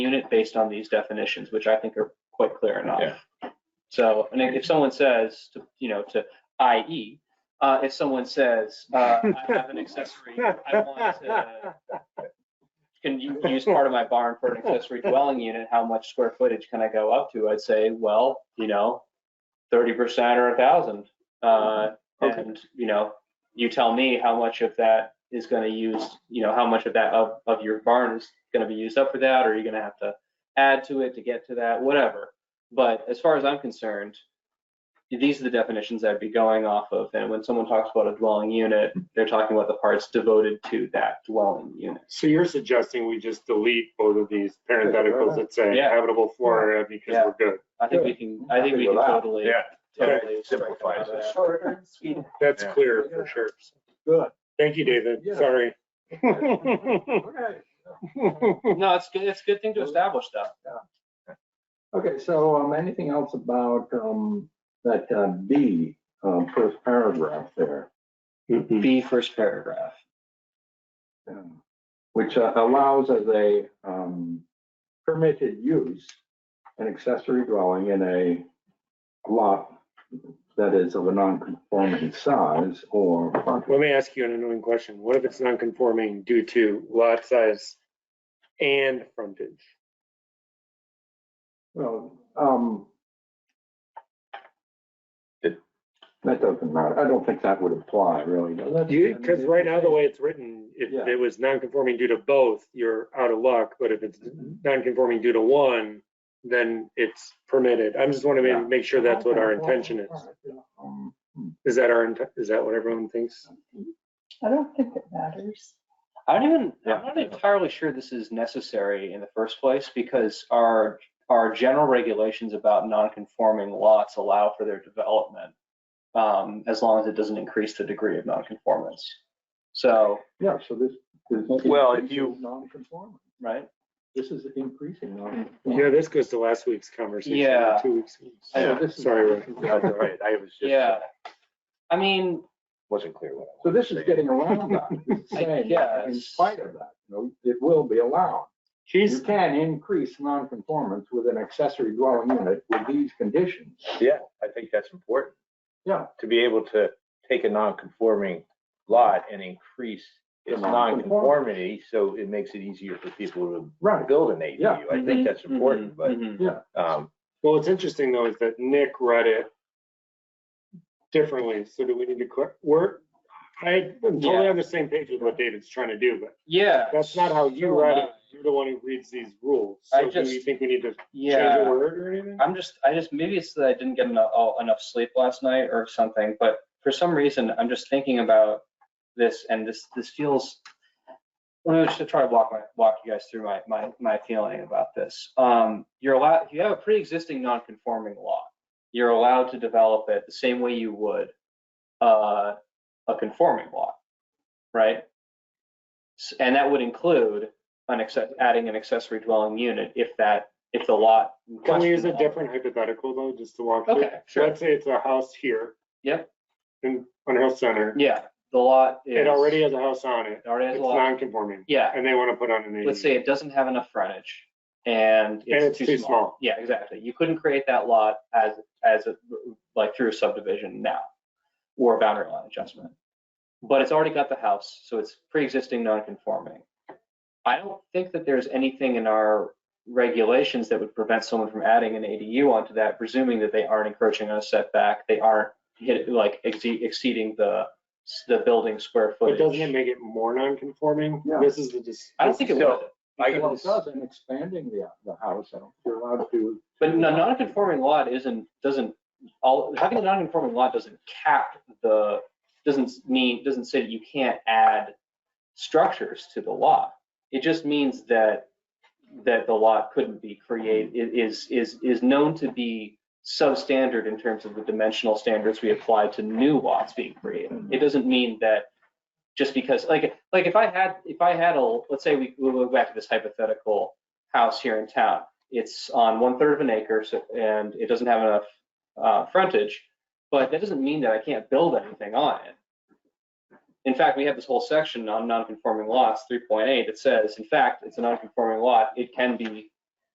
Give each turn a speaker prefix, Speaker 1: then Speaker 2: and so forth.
Speaker 1: unit based on these definitions, which I think are quite clear
Speaker 2: Yeah.
Speaker 1: enough. So, and if if someone says, to you know, to i.e., uh, if someone says, uh, I have an accessory, I want to, can you use part of my barn for an accessory dwelling unit? How much square footage can I go up to? I'd say, well, you know, thirty percent or a thousand. Uh,
Speaker 2: Okay.
Speaker 1: and, you know, you tell me how much of that is gonna use, you know, how much of that of, of your barn is gonna be used up for that, or you're gonna have to add to it to get to that, whatever. But as far as I'm concerned, these are the definitions I'd be going off of. And when someone talks about a dwelling unit, they're talking about the parts devoted to that dwelling unit.
Speaker 3: So you're suggesting we just delete both of these parentheticals that say
Speaker 1: Yeah.
Speaker 3: habitable floor area because
Speaker 1: Yeah.
Speaker 3: we're good.
Speaker 1: I think we can, I think we can
Speaker 4: Happy with that.
Speaker 1: totally,
Speaker 2: Yeah.
Speaker 1: totally.
Speaker 2: Simplifies
Speaker 1: strike
Speaker 2: it.
Speaker 1: that.
Speaker 3: That's
Speaker 2: Yeah.
Speaker 3: clear for sure.
Speaker 4: Good.
Speaker 3: Thank you, David.
Speaker 4: Yeah.
Speaker 3: Sorry.
Speaker 4: Okay.
Speaker 1: No, it's good, it's a good thing to establish that.
Speaker 4: Okay, so um, anything else about um, that uh, B, um, first paragraph there?
Speaker 3: Mhm.
Speaker 1: B first paragraph.
Speaker 4: um, Which uh, allows as a um, permitted use, an accessory dwelling in a lot that is of a non-conforming size or.
Speaker 3: Let me ask you an annoying question. What if it's non-conforming due to lot size and frontage?
Speaker 4: Well, um,
Speaker 2: It-
Speaker 4: that doesn't matter. I don't think that would apply really, does it?
Speaker 3: Because right now, the way it's written, if
Speaker 4: Yeah.
Speaker 3: it was non-conforming due to both, you're out of luck. But if it's non-conforming due to one, then it's permitted. I'm just wanting
Speaker 4: Yeah.
Speaker 3: to make sure that's what our intention is.
Speaker 4: Um,
Speaker 3: Is that our, int- is that what everyone thinks?
Speaker 5: I don't think it matters.
Speaker 1: I don't even,
Speaker 2: Yeah.
Speaker 1: I'm not entirely sure this is necessary in the first place because our, our general regulations about non-conforming lots allow for their development. Um, as long as it doesn't increase the degree of non-conformance. So,
Speaker 4: Yeah, so this is.
Speaker 2: Well, if you-
Speaker 4: Non-conforming.
Speaker 1: right?
Speaker 4: This is increasing
Speaker 3: Yeah,
Speaker 4: non-conforming.
Speaker 3: this goes to last week's conversation. or
Speaker 1: Yeah.
Speaker 3: Two weeks. ago.
Speaker 2: Yeah.
Speaker 4: So this is-
Speaker 3: Sorry, Rick.
Speaker 2: That's all right. I was just,
Speaker 1: Yeah. I mean,
Speaker 2: wasn't clear what I
Speaker 4: So
Speaker 2: was
Speaker 4: this is
Speaker 2: saying.
Speaker 4: getting around that. This is
Speaker 1: I
Speaker 4: saying that In
Speaker 1: guess.
Speaker 4: spite of that, you know, it will be allowed. You
Speaker 3: She's,
Speaker 4: can increase non-conformance with an accessory dwelling unit with these conditions.
Speaker 2: Yeah, I think that's important.
Speaker 4: Yeah.
Speaker 2: To be able to take a non-conforming lot and increase its
Speaker 4: The non-conformity.
Speaker 2: non-conformity, so it makes it easier for people to
Speaker 4: Right.
Speaker 2: build an
Speaker 4: Yeah.
Speaker 2: ADU. I think that's
Speaker 1: mhm,
Speaker 2: important, but,
Speaker 3: Mm-hmm.
Speaker 1: mhm.
Speaker 2: um,
Speaker 3: well, what's interesting though is that Nick read it differently. So do we need to, cor- we're, I'm totally
Speaker 1: Yeah.
Speaker 3: on the same page with what David's trying to do, but
Speaker 1: Yeah.
Speaker 3: that's not how you
Speaker 1: so
Speaker 3: read
Speaker 1: am
Speaker 3: it. You're the one who reads these rules.
Speaker 1: I
Speaker 3: So do you
Speaker 1: just-
Speaker 3: think we need to change a
Speaker 1: Yeah.
Speaker 3: word or anything?
Speaker 1: I'm just, I just, maybe it's that I didn't get enough, all- enough sleep last night or something, but for some reason, I'm just thinking about this and this, this feels, let me just try to walk my, walk you guys through my, my, my feeling about this. Um, you're allowed, you have a pre-existing non-conforming law. You're allowed to develop it the same way you would, uh, a conforming law, right? S- And that would include an access, adding an accessory dwelling unit if that, if the lot. in
Speaker 3: Can we
Speaker 1: question-
Speaker 3: use a different hypothetical though, just to walk through?
Speaker 1: Okay, sure.
Speaker 3: Let's say it's a house here.
Speaker 1: Yep.
Speaker 3: In, on Hill Center.
Speaker 1: Yeah, the lot is.
Speaker 3: It already has a house on it.
Speaker 1: it already has
Speaker 3: It's
Speaker 1: a lot.
Speaker 3: non-conforming.
Speaker 1: Yeah,
Speaker 3: And they want to put on an ADU.
Speaker 1: let's say it doesn't have enough frontage and it's too small. Yeah, exactly. You couldn't create that lot as, as, a like through a subdivision now or a boundary line adjustment. But it's already got the house, so it's pre-existing non-conforming. I don't think that there's anything in our regulations that would prevent someone from adding an ADU onto that, presuming that they aren't encroaching on a setback, they aren't hit, like exceed- exceeding the, the building square
Speaker 3: But
Speaker 1: footage.
Speaker 3: doesn't it make it more non-conforming?
Speaker 4: Yeah.
Speaker 3: This is the, dis-
Speaker 1: I don't think it
Speaker 2: So-
Speaker 1: would.
Speaker 2: I
Speaker 4: Well, it
Speaker 2: guess,
Speaker 4: does in expanding the, the house, I don't, you're allowed to.
Speaker 1: But a non-conforming lot isn't, doesn't, all, having a non-conforming lot doesn't cap the, doesn't mean, doesn't say that you can't add structures to the lot. It just means that, that the lot couldn't be created, is, is, is known to be substandard in terms of the dimensional standards we apply to new lots being created. It doesn't mean that just because, like, like if I had, if I had a, let's say we, we go back to this hypothetical house here in town. It's on one third of an acre, so, and it doesn't have enough, uh, frontage, but that doesn't mean that I can't build anything on it. In fact, we have this whole section on non-conforming lots, three point eight, that says, in fact, it's a non-conforming lot, it can be